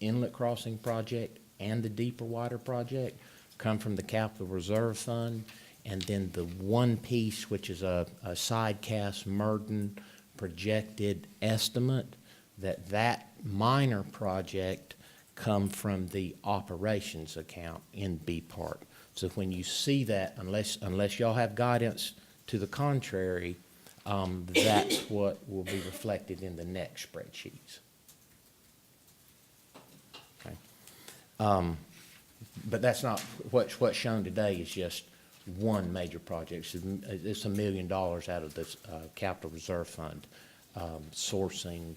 inlet crossing project and the deeper water project come from the capital reserve fund. And then the one piece, which is a, a side cast Merton projected estimate, that that minor project come from the operations account in B part. So when you see that, unless, unless y'all have guidance to the contrary, um, that's what will be reflected in the next spreadsheets. Okay. Um, But that's not, what's, what's shown today is just one major project. It's a- It's a million dollars out of this uh, capital reserve fund, um, sourcing,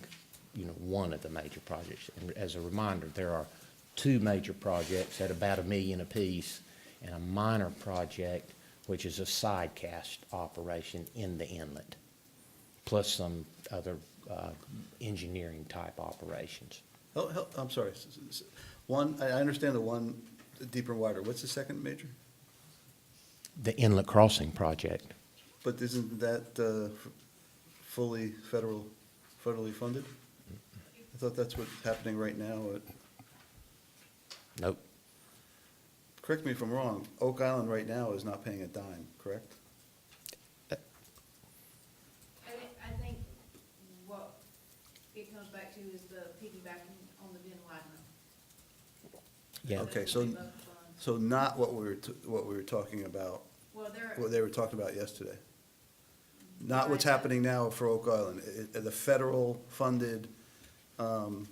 you know, one of the major projects. And as a reminder, there are two major projects at about a million apiece and a minor project, which is a side cast operation in the inlet, plus some other uh, engineering type operations. Oh, hell, I'm sorry. S- s- s- One, I, I understand the one deeper and wider. What's the second major? The inlet crossing project. But isn't that, uh, f- fully federal, federally funded? I thought that's what's happening right now. It- Nope. Correct me if I'm wrong, Oak Island right now is not paying a dime, correct? I think, I think what it comes back to is the piggybacking on the Ben Widener. Yeah. Okay, so- So not what we were, t- what we were talking about, Well, there, what they were talking about yesterday. Not what's happening now for Oak Island, I- I- the federal funded, um,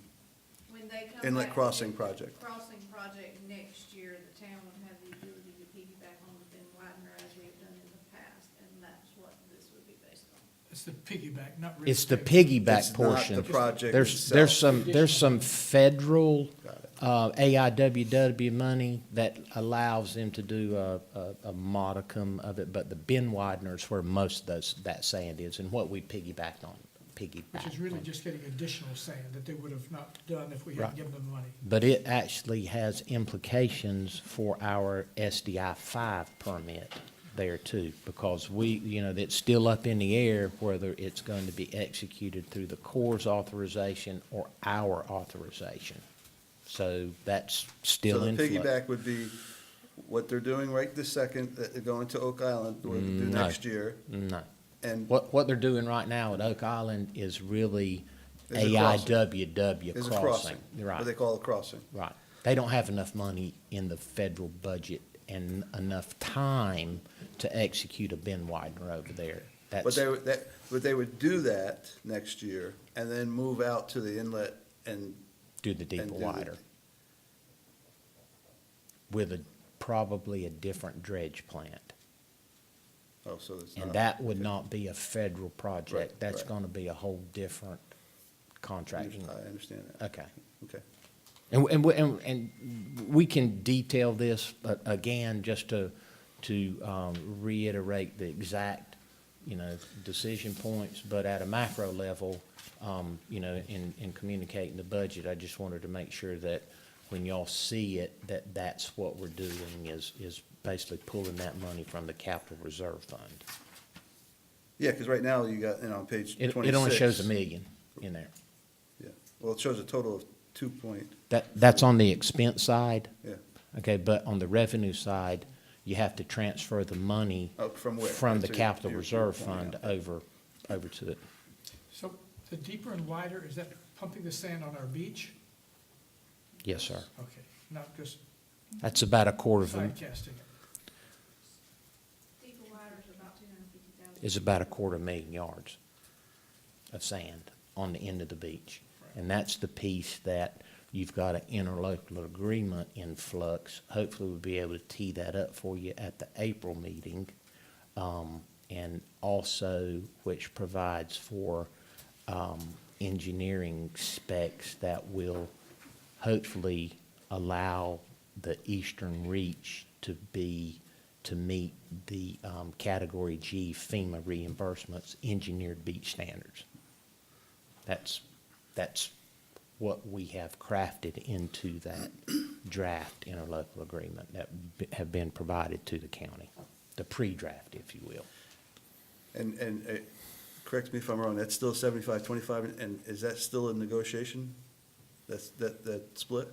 when they come back. Inlet to Crossing the project. Crossing project next year, the town would have the ability to piggyback on the Ben Widener as we have done in the past, and that's what this would be based on. It's the piggyback, not real It's the estate. It's piggyback not portion. the project There's, there's itself. some, there's some federal Got it. uh, AIWW money that allows them to do a, a- a modicum of it, but the bin widener's where most of those, that sand is and what we piggybacked on, piggyback. Which is really just getting additional sand that they would have not done if we Right. hadn't given them money. But it actually has implications for our SDI five permit there too, because we, you know, it's still up in the air whether it's going to be executed through the Corps' authorization or our authorization. So that's still in So flux. the piggyback would be what they're doing right this second, that they're going to Oak Island, what they do Mm, No. next year, No. and What, what they're doing right now at Oak Island is really Is a crossing. AIWW is a crossing. crossing, what they Right, call a crossing. right. They don't have enough money in the federal budget and enough time to execute a bin widener over there. But That's, they would, that, but they would do that next year, and then move out to the inlet and, do the deeper do the- wider. With a, probably a different dredge plant. oh, so it's not. And that would not be a federal project. Right, That's right. gonna be a whole different I contracting. understand that. Okay. Okay. And, and, we- and, and we can detail this, but again, just to, to um, reiterate the exact, you know, decision points, but at a macro level, um, you know, in, in communicating the budget, I just wanted to make sure that when y'all see it, that that's what we're doing is, is basically pulling that money from the capital reserve fund. Yeah, because right now you got, you know, on page It, it twenty-six. only shows a million in there. Yeah, well, it shows a total of two point, That, that's on the expense side. yeah, Okay, but on the revenue side, you have to transfer the money. Oh, from where? From the That's what capital you're- you're reserve pointing fund out. over, over to it. So the deeper and wider, is that pumping the sand on our beach? Yes, sir. Okay, not just That's about a quarter of, a side casting it. Deeper Widener's about two hundred and fifty thousand. is about a quarter million yards of sand on the end of the beach. And that's the piece that you've got an interlocal agreement in flux. Hopefully we'll be able to tee that up for you at the April meeting. Um, and also, which provides for, um, engineering specs that will hopefully allow the eastern reach to be, to meet the um, Category G FEMA reimbursements, engineered beach standards. That's, that's what we have crafted into that draft interlocal agreement that b- have been provided to the county, the pre-draft, if you will. and, and, uh, correct me if I'm wrong, that's still seventy-five, twenty-five, and is that still a negotiation? That's, that, that split?